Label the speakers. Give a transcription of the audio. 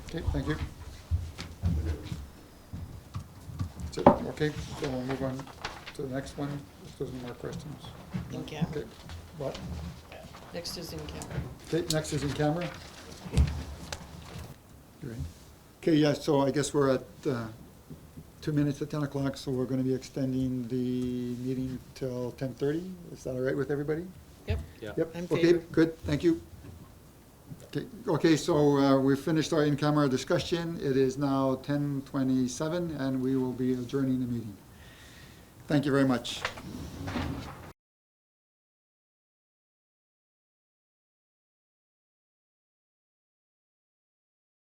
Speaker 1: Okay, thank you. That's it. Okay, so we'll move on to the next one, if there's any more questions.
Speaker 2: In camera.
Speaker 1: Okay, What?
Speaker 2: Next is in camera.
Speaker 1: Okay, next is in camera. You ready? Okay, yeah, so I guess we're at uh, two minutes to 10 o'clock, so we're going to be extending the meeting till 10:30. Is that all right with everybody?
Speaker 2: Yep.
Speaker 3: Yeah.
Speaker 2: I'm
Speaker 1: Yep, okay,
Speaker 2: favored.
Speaker 1: good, thank you. Okay, Okay, so uh, we've finished our in-camera discussion. It is now 10:27, and we will be adjourning the meeting. Thank you very much.